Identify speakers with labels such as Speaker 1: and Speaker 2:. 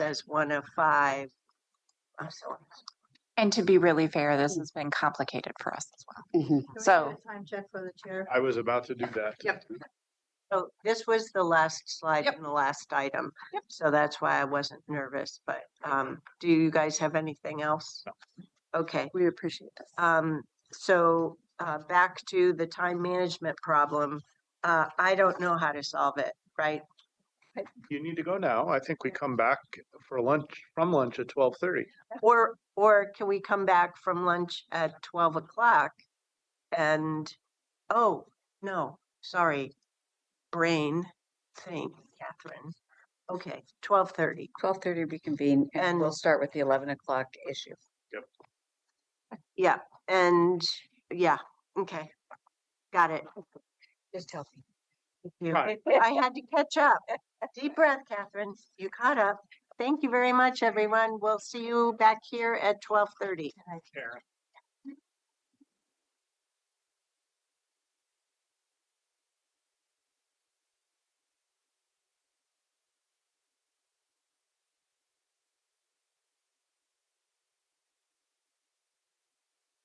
Speaker 1: was one of five. I'm sorry.
Speaker 2: And to be really fair, this has been complicated for us as well.
Speaker 3: Mhm.
Speaker 1: Can we get a
Speaker 2: So-
Speaker 1: Time check for the chair.
Speaker 4: I was about to do that.
Speaker 1: Yep. So this was the last slide
Speaker 2: Yep.
Speaker 1: and the last item.
Speaker 2: Yep.
Speaker 1: So that's why I wasn't nervous, but um, do you guys have anything else? Okay,
Speaker 2: We appreciate this.
Speaker 1: um, so uh, back to the time management problem. Uh, I don't know how to solve it, right?
Speaker 4: You need to go now. I think we come back for lunch, from lunch at twelve thirty.
Speaker 1: Or, or can we come back from lunch at twelve o'clock? And, oh, no, sorry, brain thing, Catherine. Okay, twelve thirty.
Speaker 3: Twelve thirty reconvene
Speaker 1: And-
Speaker 3: and we'll start with the eleven o'clock issue.
Speaker 1: Yeah, and, yeah, okay, got it.
Speaker 3: Just tell me.
Speaker 1: You-
Speaker 4: Right.
Speaker 1: I had to catch up. Deep breath, Catherine. You caught up. Thank you very much, everyone. We'll see you back here at twelve thirty.